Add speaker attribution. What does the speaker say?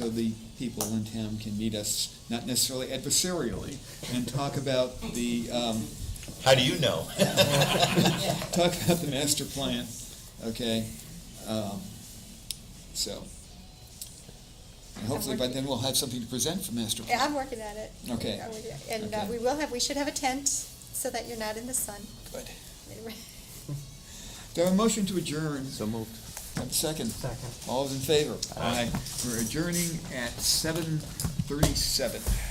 Speaker 1: So the people in town can meet us, not necessarily adversarially, and talk about the, um,
Speaker 2: How do you know?
Speaker 1: talk about the master plan, okay? Um, So, and hopefully by then we'll have something to present for master
Speaker 3: Yeah,
Speaker 1: plan.
Speaker 3: I'm working at it.
Speaker 1: Okay.
Speaker 3: I'm working- And uh,
Speaker 1: Okay.
Speaker 3: we will have, we should have a tent so that you're not in the sun.
Speaker 1: Good. Do I have a motion to adjourn? So moved. Second. Second. All those in favor? Aye. We're adjourning at seven thirty-seven.